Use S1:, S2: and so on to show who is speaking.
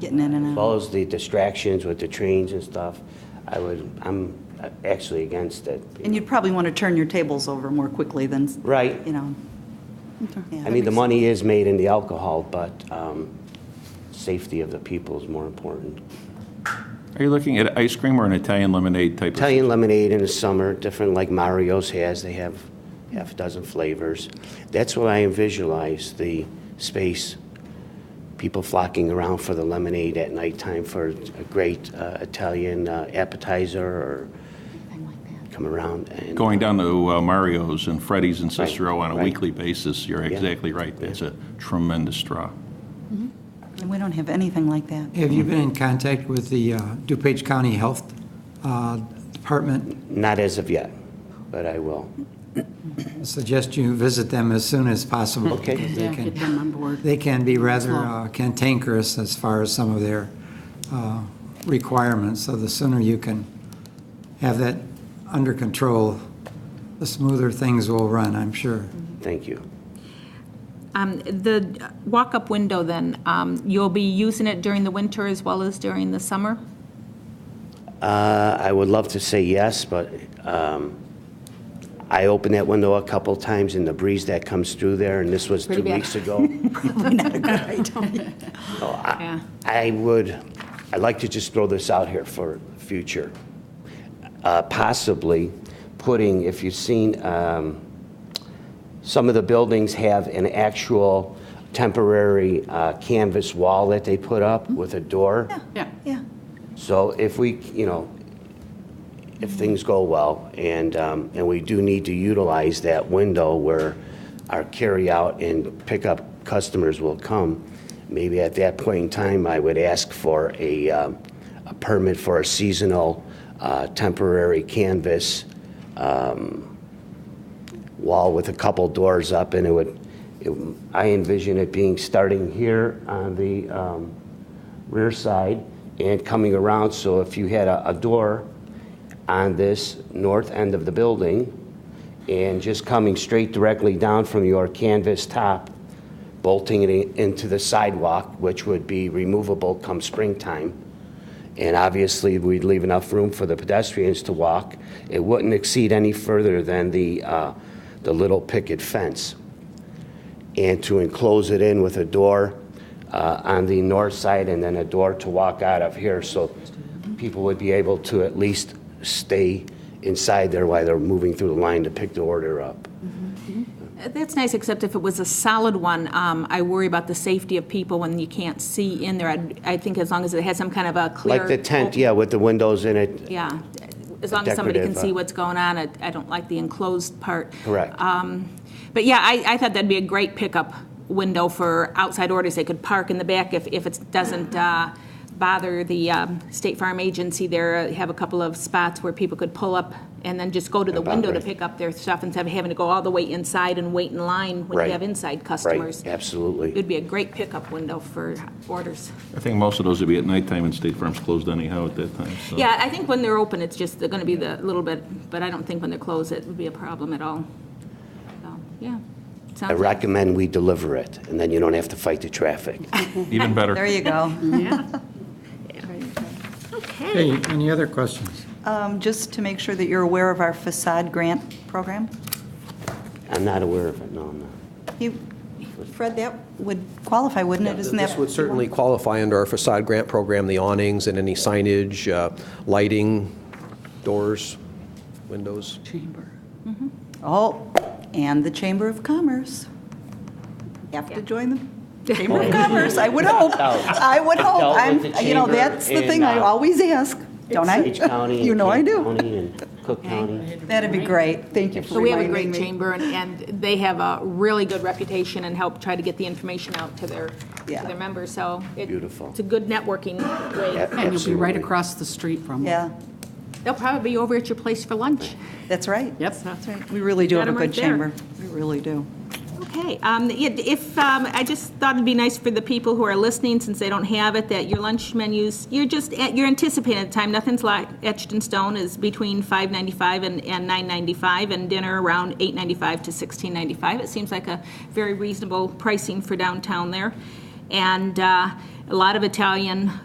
S1: getting in and
S2: As
S1: out.
S2: well as the distractions with the trains and stuff, I would, I'm actually against it.
S1: And you'd probably want to turn your tables over more quickly than,
S2: Right.
S1: you know. Yeah.
S2: I mean, the money is made in the alcohol, but um, safety of the people is more important.
S3: Are you looking at ice cream or an Italian lemonade type of?
S2: Italian lemonade in the summer, different like Mario's has, they have half a dozen flavors. That's what I visualize, the space, people flocking around for the lemonade at nighttime for a great uh, Italian uh, appetizer or come around and.
S3: Going down to uh, Mario's and Freddy's and Cicero on a
S2: right.
S3: weekly basis, you're exactly right. That's a tremendous draw.
S1: And we don't have anything like that.
S4: Have you been in contact with the uh, DuPage County Health uh, Department?
S2: Not as of yet, but I will.
S4: I Suggest you visit them as soon as possible.
S2: Okay.
S4: because they
S5: Yeah,
S4: can-
S5: get them on board.
S4: They can be rather uh, cantankerous as far as some of their uh, requirements, so the sooner you can have that under control, the smoother things will run, I'm sure.
S2: Thank you.
S6: Um, The walk-up window, then, um, you'll be using it during the winter as well as during the summer?
S2: Uh, I would love to say yes, but um, I opened that window a couple times and the breeze that comes through there, and this was two
S6: Pretty bad.
S2: weeks ago.
S6: Yeah.
S2: I would, I'd like to just throw this out here for future. Uh, Possibly putting, if you've seen, um, some of the buildings have an actual temporary uh, canvas wall that they put up with a door.
S5: Yeah.
S1: Yeah.
S2: So if we, you know, if things go well, and, um, and we do need to utilize that window where our carryout and pickup customers will come, maybe at that point in time, I would ask for a, um, a permit for a seasonal, uh, temporary canvas, um, wall with a couple doors up, and it would, it- I envision it being starting here on the um, rear side and coming around, so if you had a, a door on this north end of the building, and just coming straight directly down from your canvas top, bolting it in- into the sidewalk, which would be removable come springtime, and obviously, we'd leave enough room for the pedestrians to walk. It wouldn't exceed any further than the, uh, the little picket fence. And to enclose it in with a door uh, on the north side and then a door to walk out of here, so people would be able to at least stay inside there while they're moving through the line to pick the order up.
S6: That's nice, except if it was a solid one, um, I worry about the safety of people when you can't see in there. I'd- I think as long as it has some kind of a clear.
S2: Like the tent, yeah, with the windows in it,
S6: Yeah, as long as somebody can
S2: Decorative, uh,
S6: see what's going on, I I don't like the enclosed part.
S2: correct.
S1: Uh,
S6: But yeah, I, I thought that'd be a great pickup window for outside orders. They could park in the back if, if it doesn't uh, bother the um, State Farm Agency there. uh, Have a couple of spots where people could pull up and then just go to the
S2: About
S6: window to
S2: right.
S6: pick up their stuff instead of having to go all the way inside and wait in line when
S2: Right.
S6: you have inside customers.
S2: Right, absolutely.
S6: It'd be a great pickup window for orders.
S3: I think most of those would be at nighttime and State Farm's closed anyhow at that time, so.
S6: Yeah, I think when they're open, it's just, they're going to be the little bit, but I don't think when they're closed, it would be a problem at all. So, Yeah.
S2: I
S6: Sounds like-
S2: recommend we deliver it, and then you don't have to fight the traffic.
S3: Even better.
S1: There you go.
S4: Hey, any other questions?
S1: Um, Just to make sure that you're aware of our facade grant program.
S2: I'm not aware of it, no, I'm not.
S1: You, Fred, that would qualify, wouldn't it? Isn't that?
S7: This would certainly qualify under our facade grant program, the awnings and any signage, uh, lighting, doors, windows.
S5: Chamber.
S1: Oh, and the Chamber of Commerce. Have to join the Chamber of Commerce, I would hope. I would hope.
S2: Dealt with
S1: I'm,
S2: the
S1: you know,
S2: chamber
S1: that's the
S2: and,
S1: thing I
S2: uh,
S1: always ask, don't I?
S2: Page County. and
S1: You know I
S2: Kent
S1: do.
S2: County and Cook County.
S1: That'd be great. Thank you for
S6: So we have a
S1: reminding me.
S6: great chamber, and, and they have a really good reputation and help try to get the information out to their,
S1: Yeah.
S6: to their members, so. it-
S2: Beautiful.
S6: It's a good networking way.
S2: Yeah,
S5: And you'll be
S2: absolutely.
S5: right across the street from them.
S1: Yeah,
S6: They'll probably be over at your place for lunch.
S1: that's right.
S5: Yep.
S1: That's right. We really do
S6: Got
S1: have a
S6: 'em
S1: good
S6: right there.
S1: chamber. We really do.
S6: Okay, um, it- if, um, I just thought it'd be nice for the people who are listening, since they don't have it, that your lunch menus, you're just, at- you're anticipating the time, nothing's like etched in stone, is between five ninety-five and, and nine ninety-five, and dinner around eight ninety-five to sixteen ninety-five. It seems like a very reasonable pricing for downtown there. And, uh, a lot of Italian